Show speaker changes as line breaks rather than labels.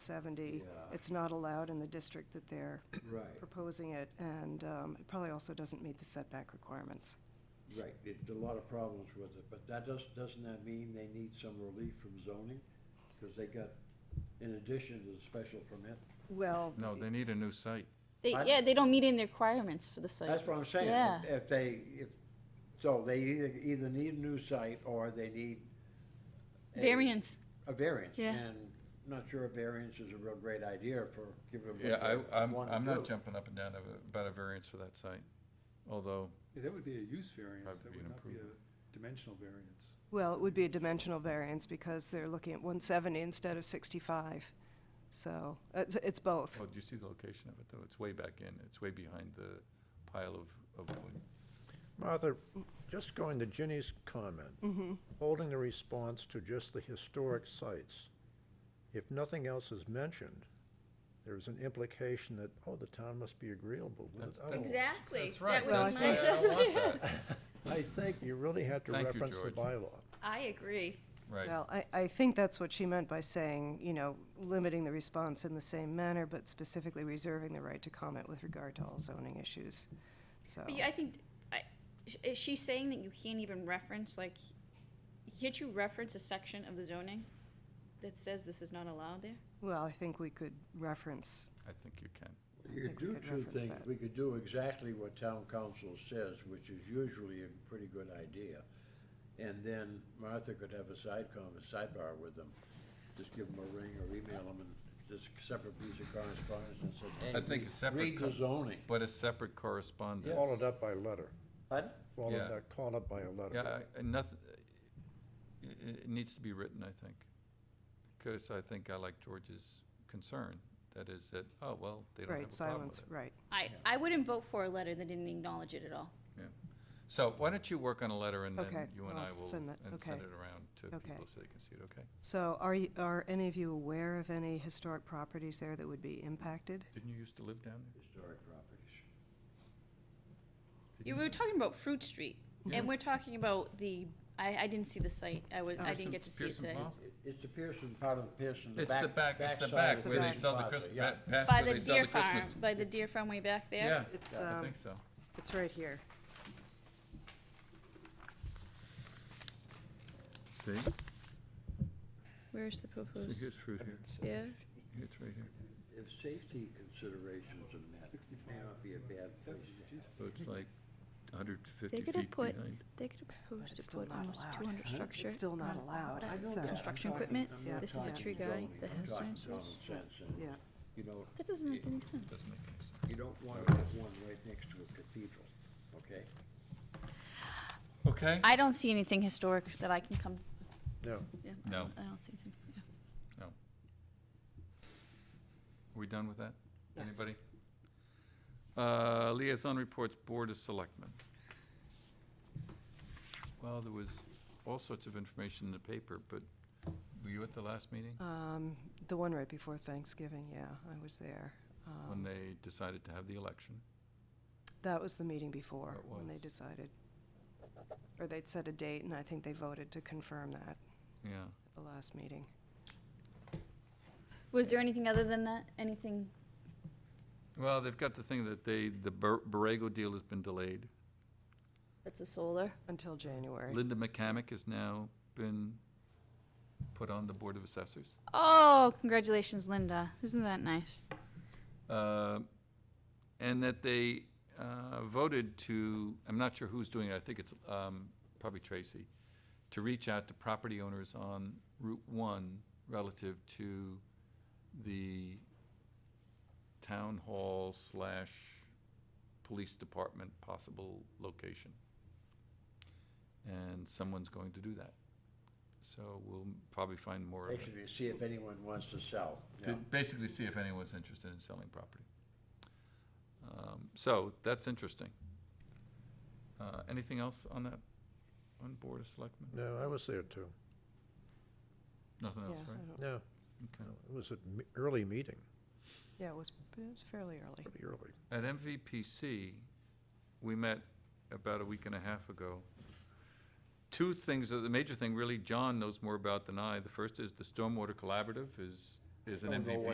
70.
Yeah.
It's not allowed in the district that they're
Right,
proposing it, and um, it probably also doesn't meet the setback requirements.
right, there's a lot of problems with it, but that does, doesn't that mean they need some relief from zoning? Because they got, in addition to the special permit,
Well,
No, they need a new site.
They,
I-
yeah, they don't meet any requirements for the site.
that's what I'm saying.
Yeah.
If they, if, so they either, either need a new site or they need. a-
Variance.
A variance,
Yeah.
and I'm not sure a variance is a real great idea for giving them
Yeah,
what
I,
they
I'm,
want to
I'm not
do.
jumping up and down of- about a variance for that site, although,
Yeah, that would be a use variance,
That'd
that
be
would
an
not be
improvement.
a dimensional variance.
well, it would be a dimensional variance because they're looking at 170 instead of 65. So it's it's both.
oh, do you see the location of it, though? It's way back in, it's way behind the pile of, of wood.
Martha, just going to Ginny's comment, holding the response to just the historic sites. If nothing else is mentioned, there's an implication that, oh, the town must be agreeable with
That's-
it.
that's-
Oh,
Exactly.
That's right. that's
be
why I don't want that.
I think you really had to
Thank you,
reference the
George.
bylaw.
I agree.
Right,
Well, I, I think that's what she meant by saying, you know, limiting the response in the same manner, but specifically reserving the right to comment with regard to all zoning issues, so.
But you- I think, I, sh- is she saying that you can't even reference, like, can't you reference a section of the zoning that says this is not allowed there?
Well, I think we could reference,
I think you can.
You
think we
could do
could
two
reference
things.
that.
We could do exactly what town council says, which is usually a pretty good idea. And then Martha could have a side conver, sidebar with them. Just give them a ring or email them and just separate piece of correspondence and say, hey.
I think
read-
a separate
Read the
co-
zoning.
But a separate correspondence.
Followed up by letter,
Pardon?
Yeah.
followed up, called up by a letter.
Yeah, I- I, nothing, it, it needs to be written, I think. Because I think I like George's concern, that is that, oh, well, they don't have a
right,
problem with
silence,
it.
right.
I, I wouldn't vote for a letter that didn't acknowledge it at all.
Yeah. So why don't you work on a letter and
Okay,
then you and
I'll
I will,
send that,
and send
okay.
it around to
Okay.
people so they can see it, okay?
So are, you- are any of you aware of any historic properties there that would be impacted?
Didn't you used to live down there?
Historic properties.
You were talking about Fruit Street,
Yeah.
and we're talking about the, I, I didn't see the site. I was, I didn't get to see it
Pearson
today.
Plaza.
It- It's the Pearson, part of Pearson, the
It's
back.
the back, it's the
backside
back
of
where they
Pearson
sell the
Plaza,
Christmas,
yeah.
past
By
where
the
they sell the
deer farm,
Christmas.
by the deer farm way back
Yeah,
there.
It's,
I
um,
think so.
It's right here.
See?
Where's the proposed?
here's fruit here.
Yeah.
It's right here.
If safety considerations are met, it may not be a bad place to have.
So it's like hundred fifty
They could
feet
have put,
behind.
they could have proposed
it's
to
still
put
not
almost
allowed.
two hundred structure.
It's still not allowed,
that-
so-
Construction
I'm talking-
equipment,
I'm
Yeah.
not
this is a
talking
tree guy
zoning,
that
I'm
has
talking
fences.
common sense, and,
Yeah.
You know,
That doesn't make any sense.
Doesn't make any sense.
you don't want to have one right next to a cathedral, okay?
Okay?
I don't see anything historic that I can come,
No,
yeah.
I No. don't-
I don't see anything,
No. We done with that?
Yes.
Anybody? Uh, liaison reports, Board of Selectmen. Well, there was all sorts of information in the paper, but were you at the last meeting?
Um, the one right before Thanksgiving, yeah, I was there.
When
Um,
they decided to have the election?
That was the meeting before,
That
when they
was.
decided. Or they'd set a date, and I think they voted to confirm that
Yeah.
at the last meeting.
Was there anything other than that? Anything?
Well, they've got the thing that they, the Bar- Borrego deal has been delayed.
That's a solar.
Until January.
Linda McCamick has now been put on the Board of Assessors.
Oh, congratulations, Linda. Isn't that nice?
uh, and that they uh, voted to, I'm not sure who's doing it, I think it's um, probably Tracy, to reach out to property owners on Route 1 relative to the town hall slash police department possible location. And someone's going to do that. So we'll probably find more of it
Basically, see if anyone wants to sell.
to basically see if anyone's interested in selling property. Um, So, that's interesting. Uh, Anything else on that, on Board of Selectmen?
no, I was there too.
Nothing
Yeah,
else,
I
right?
don't-
No, no,
Okay.
it was an early meeting,
yeah, it was, it was fairly early.
pretty early.
At MVPC, we met about a week and a half ago. Two things, the major thing really John knows more about than I. The first is the Stormwater Collaborative is, is an
Don't know
MVP.
what